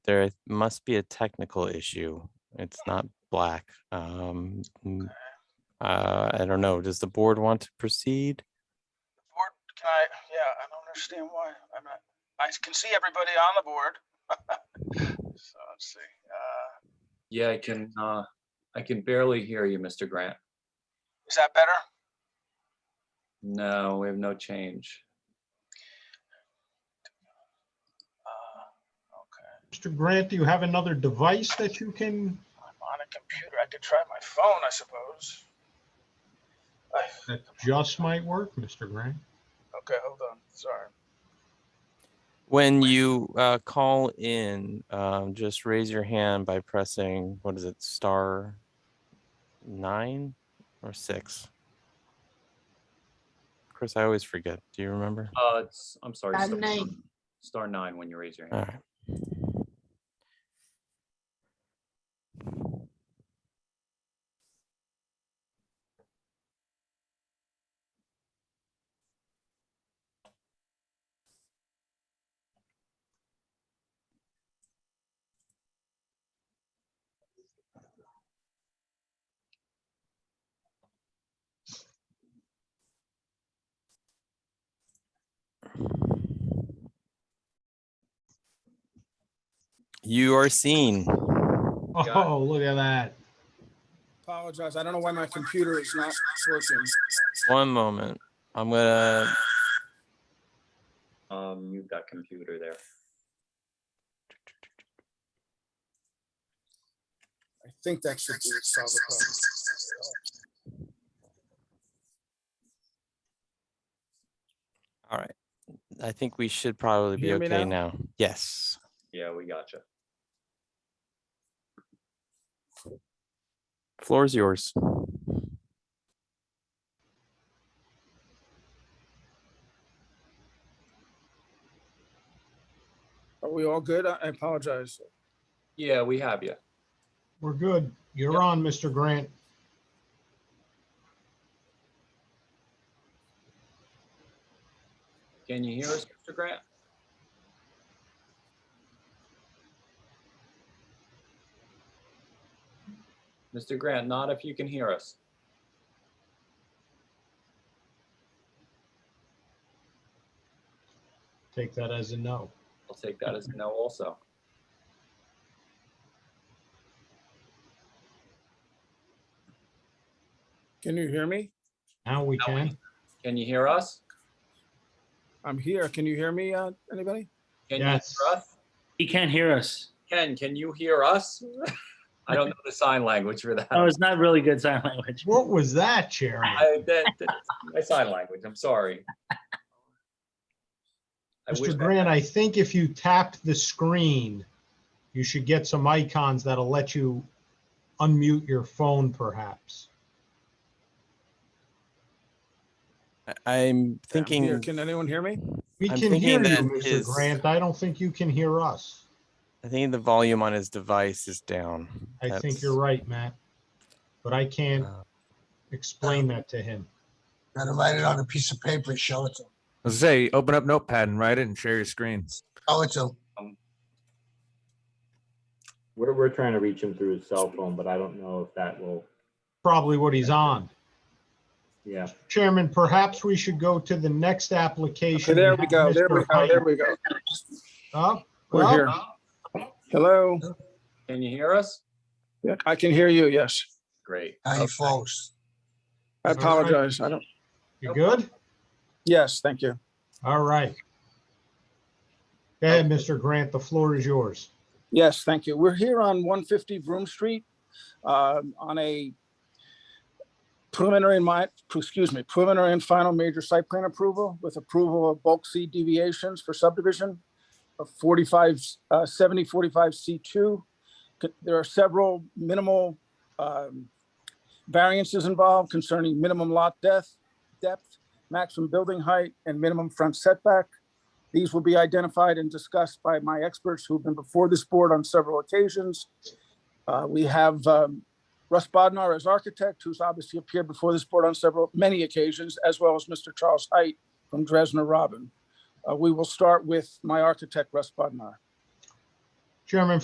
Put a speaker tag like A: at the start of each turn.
A: there must be a technical issue. It's not black. Um, mm, uh, I don't know. Does the board want to proceed?
B: Board, can I, yeah, I don't understand why. I'm not, I can see everybody on the board. So let's see, uh,
C: Yeah, I can, uh, I can barely hear you, Mr. Grant.
B: is that better?
C: No, we have no change.
B: Uh, Okay,
D: Mr. Grant, do you have another device that you can,
B: I'm on a computer. I could try my phone, I suppose. Uh,
D: that just might work, Mr. Grant?
B: Okay, hold on, sorry.
A: When you uh, call in, um, just raise your hand by pressing, what is it, star nine or six? Chris, I always forget. Do you remember?
C: Uh, it's, I'm sorry.
E: Star
C: star-
E: nine.
C: Star nine when you raise your
A: All
C: hand.
A: right. You are seen.
C: it.
D: Oh, look at that.
F: Apologize. I don't know why my computer is not working.
A: One moment. I'm gonna
C: Um, mute that computer there.
F: I think that should do- solve the problem.
A: All right. I think we should probably be
G: Hear me
A: okay now. Yes.
C: Yeah, we gotcha.
A: Floor is yours.
F: Are we all good? I I apologize.
C: Yeah, we have you.
D: We're good.
C: Yep.
D: You're on, Mr. Grant.
C: Can you hear us, Mr. Grant? Mr. Grant, not if you can hear us.
D: Take that as a no.
C: I'll take that as a no also.
F: Can you hear me?
D: Now we can.
C: Can you hear us?
F: I'm here. Can you hear me, uh, anybody?
C: Can you hear
D: Yes.
C: us?
G: He can't hear us.
C: Ken, can you hear us? I don't know the sign language for that.
G: Oh, it's not really good sign language.
D: What was that, Sharon?
C: I, that, that's my sign language, I'm sorry. I wish I-
D: Mr. Grant, I think if you tap the screen, you should get some icons that'll let you unmute your phone perhaps.
A: I- I'm
F: I'm here.
A: thinking,
F: Can anyone hear me?
D: We
A: I'm
D: can hear you,
A: thinking that
D: Mr.
A: his-
D: Grant. I don't think you can hear us.
A: I think the volume on his device is down.
D: I think you're
A: That's-
D: right, Matt. But I can't
A: uh,
D: explain that to him.
H: Gotta write it on a piece of paper, show it to,
I: I was gonna say, open up Notepad and write it and share your screen.
H: show it to.
J: We're, we're trying to reach him through his cell phone, but I don't know if that will,
D: Probably what he's on.
J: yeah.
D: Chairman, perhaps we should go to the next
F: Okay,
D: application.
F: There we go. There we
D: Mr.
F: go. There
D: Hyde.
F: we go.
D: Oh,
F: We're
D: well,
F: here. Hello?
C: Can you hear us?
F: Yeah, I can hear you. Yes.
C: Great.
H: How you folks?
F: I
D: Is that all right?
F: apologize. I don't,
D: You good?
F: yes, thank you.
D: All right. Go ahead, Mr. Grant. The floor is yours.
F: Yes, thank you. We're here on 150 Broom Street um, on a preliminary, and mi- excuse me, preliminary and final major site plan approval with approval of bulk C deviations for subdivision of 45, uh, 70, 45 C2. C- There are several minimal um, variances involved concerning minimum lot depth, depth, maximum building height, and minimum front setback. These will be identified and discussed by my experts who've been before this board on several occasions. Uh, We have um, Russ Bodnar as architect, who's obviously appeared before this board on several, many occasions, as well as Mr. Charles Height from Dresdner Robin. Uh, We will start with my architect, Russ Bodnar.
D: Chairman